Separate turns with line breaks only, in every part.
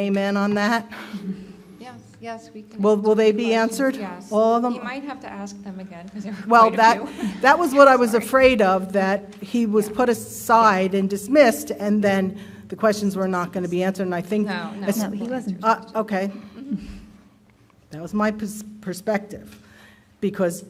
Amen on that?
Yes, yes, we can.
Will, will they be answered?
Yes.
All of
You
them?
might have to ask them again, because there were
Well,
quite
that,
a few.
that was what I was afraid of, that he was put aside and dismissed, and then the questions were not going to be answered, and I think.
No, no.
as-
No, he wasn't.
Uh, okay. That was my pers- perspective, because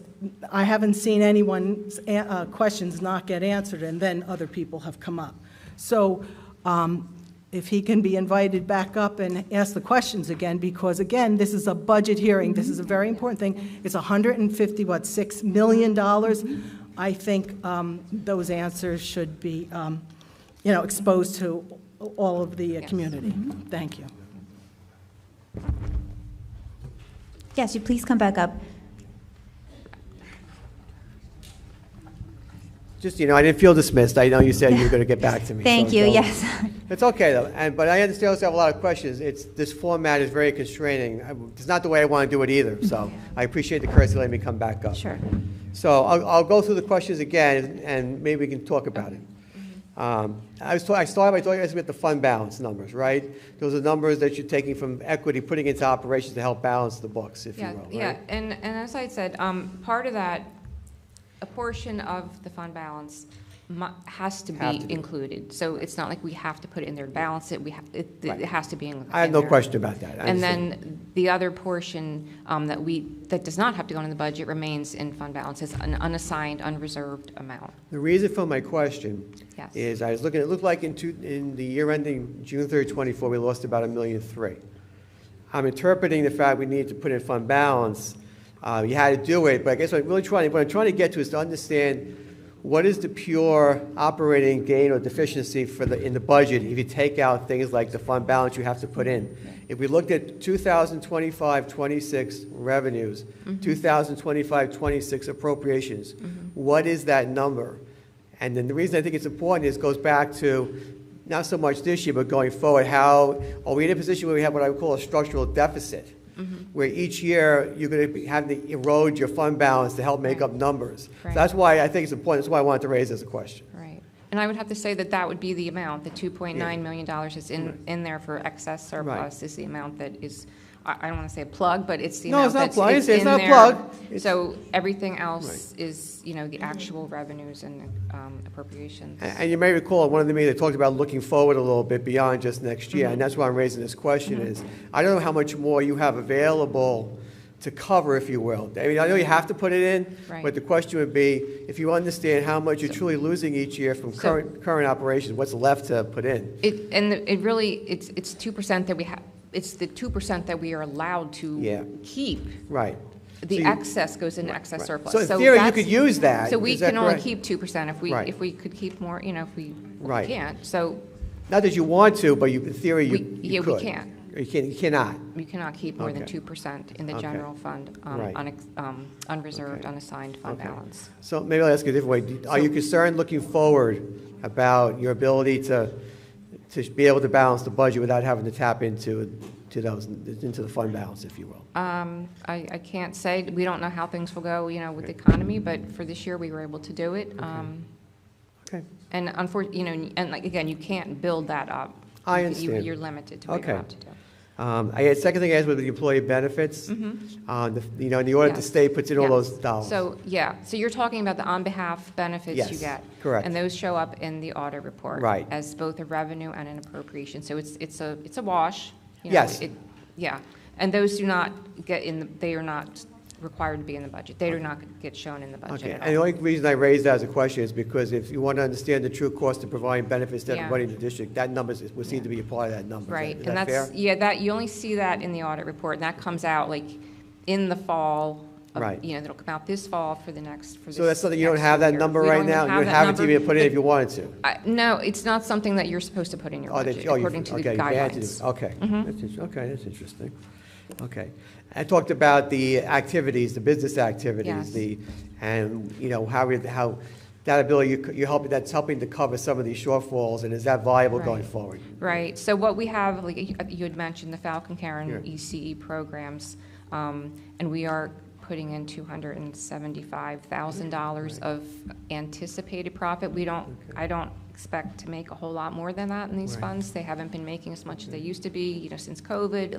I haven't seen anyone's a- uh, questions not get answered, and then other people have come up. So um, if he can be invited back up and ask the questions again, because again, this is a budget hearing, this is a very important thing. It's 150, what, $6 million? dollars? I think um, those answers should be, um, you know, exposed to all of the uh,
Yes.
community. Thank you.
Yes, you please come back up.
Just, you know, I didn't feel dismissed. I know you said you were going to get back to me.
Thank
so
you,
don't-
yes.
It's okay, though, and, but I understand also have a lot of questions. It's, this format is very constraining. I- It's not the way I want to do it either, so I appreciate the courtesy of letting me come back up.
Sure.
So I'll, I'll go through the questions again, and maybe we can talk about it.
Mm-hmm.
Um, I was, ta- I started by talking about the fund balance numbers, right? Those are numbers that you're taking from equity, putting into operations to help balance the books, if you
Yeah,
will, right?
yeah, and, and as I said, um, part of that, a portion of the fund balance mu- has to
Have
be
to be.
included. So it's not like we have to put it in there to balance it, we have, it,
Right.
it has to be in.
I have
in
no
there.
question about that. I
And
understand.
then the other portion um, that we, that does not have to go in the budget remains in fund balance, it's an unassigned, unreserved amount.
The reason for my question
Yes.
is I was looking, it looked like in two, in the year ending June 30, 24, we lost about a million three. I'm interpreting the fact we need to put in fund balance. Uh, You had to do it, but I guess what I'm really trying, what I'm trying to get to is to understand what is the pure operating gain or deficiency for the, in the budget if you take out things like the fund balance you have to put in? If we looked at 2025, 26 revenues, 2025, 26 appropriations, what is that number? And then the reason I think it's important is goes back to not so much this year, but going forward, how, are we in a position where we have what I would call a structural deficit?
Mm-hmm.
Where each year, you're going to have to erode your fund balance to help make up numbers. So
Right.
That's why I think it's important, that's why I wanted to raise this question.
Right. And I would have to say that that would be the amount, the $2.9 million dollars is in, in there for excess surplus is the amount that is, I I don't want to say a plug, but it's the
No,
amount
it's not a
that's
plug.
it's
It's- it's
in
not a
there.
plug. It's-
So everything else is, you know, the actual revenues and um, appropriations.
And and you may recall, at one of the meetings, they talked about looking forward a little bit beyond just next year,
Mm-hmm.
and that's why I'm raising this question is, I don't know how much more you have available to cover, if you will. I mean, I know you have to put it in,
Right.
but the question would be, if you understand how much you're truly losing each year from
So-
current, current operations, what's left to put in?
It, and it really, it's, it's 2% that we have, it's the 2% that we are allowed
Yeah.
to keep.
Right. So
The
you-
excess goes into excess
right.
surplus.
So in theory, you
that's-
could use that.
So we
Is that
can only
correct?
keep 2% if we,
Right.
if we could keep more, you know, if we we
Right.
can't. So
Not that you want to, but you, in theory, you
We-
you
yeah, we
could.
can't.
You can, you cannot.
You cannot keep more than
Okay.
two percent in the
Okay.
general fund, um,
Right.
unex- um, unreserved, unassigned fund
Okay.
balance.
So maybe I'll ask you a different way. Are you concerned looking forward about your ability to, to be able to balance the budget without having to tap into, to those, into the fund balance, if you will?
Um, I, I can't say, we don't know how things will go, you know, with the economy, but for this year, we were able to do it. Um,
Okay.
And unfortunately, you know, and like, again, you can't build that up.
I
You- you-
understand.
You're limited to what
Okay.
you're allowed to do.
Um, I had, second thing I asked was the employee benefits. Uh, the- You know, in the order the
Mm-hmm. Yes.
state puts in all
Yeah.
those dollars.
So, yeah, so you're talking about the on-behalf benefits you
Yes,
get.
correct.
And those show up in the audit report.
Right.
As both a revenue and an appropriation, so it's, it's a, it's a wash. you know,
Yes.
it- Yeah, and those do not get in, the- they are not required to be in the budget, they do not get shown in the budget
Okay,
at
and the
all.
only reason I raised that as a question is because if you want to understand the true cost of providing benefits to
Yeah.
everybody in the district, that number is- would seem to be a part of that number. Is that-
Right,
is
and
that
that's,
fair?
yeah, that, you only see that in the audit report, and that comes out like in the fall. of-
Right.
You know, that'll come out this fall for the next, for this.
So that's something, you don't
next
have that
year.
number
We don't
right
even
now? You
have
don't
that
have it to
number.
be able to put in
The-
if you wanted to?
I- No, it's not something that you're supposed to put in your
Oh, that-
budget,
oh, you-
according to the
okay, you added it. Oh.
guidelines. Mm-hmm.
Okay, that's, int- okay, that's interesting. Okay. I talked about the activities, the business
Yes.
activities, the, and, you know, how, we- how, that ability, you c- you're helping, that's helping to cover some of these shortfalls, and is that viable going
Right.
forward?
Right, so what we have, like, you you had mentioned the Falcon Karen
Yeah.
ECE E programs, um, and we are putting in two hundred and seventy-five thousand dollars of anticipated profit. We don't, I don't expect to make a whole lot more than that in these
Right.
funds. They haven't been making as much as they used to be, you know, since COVID.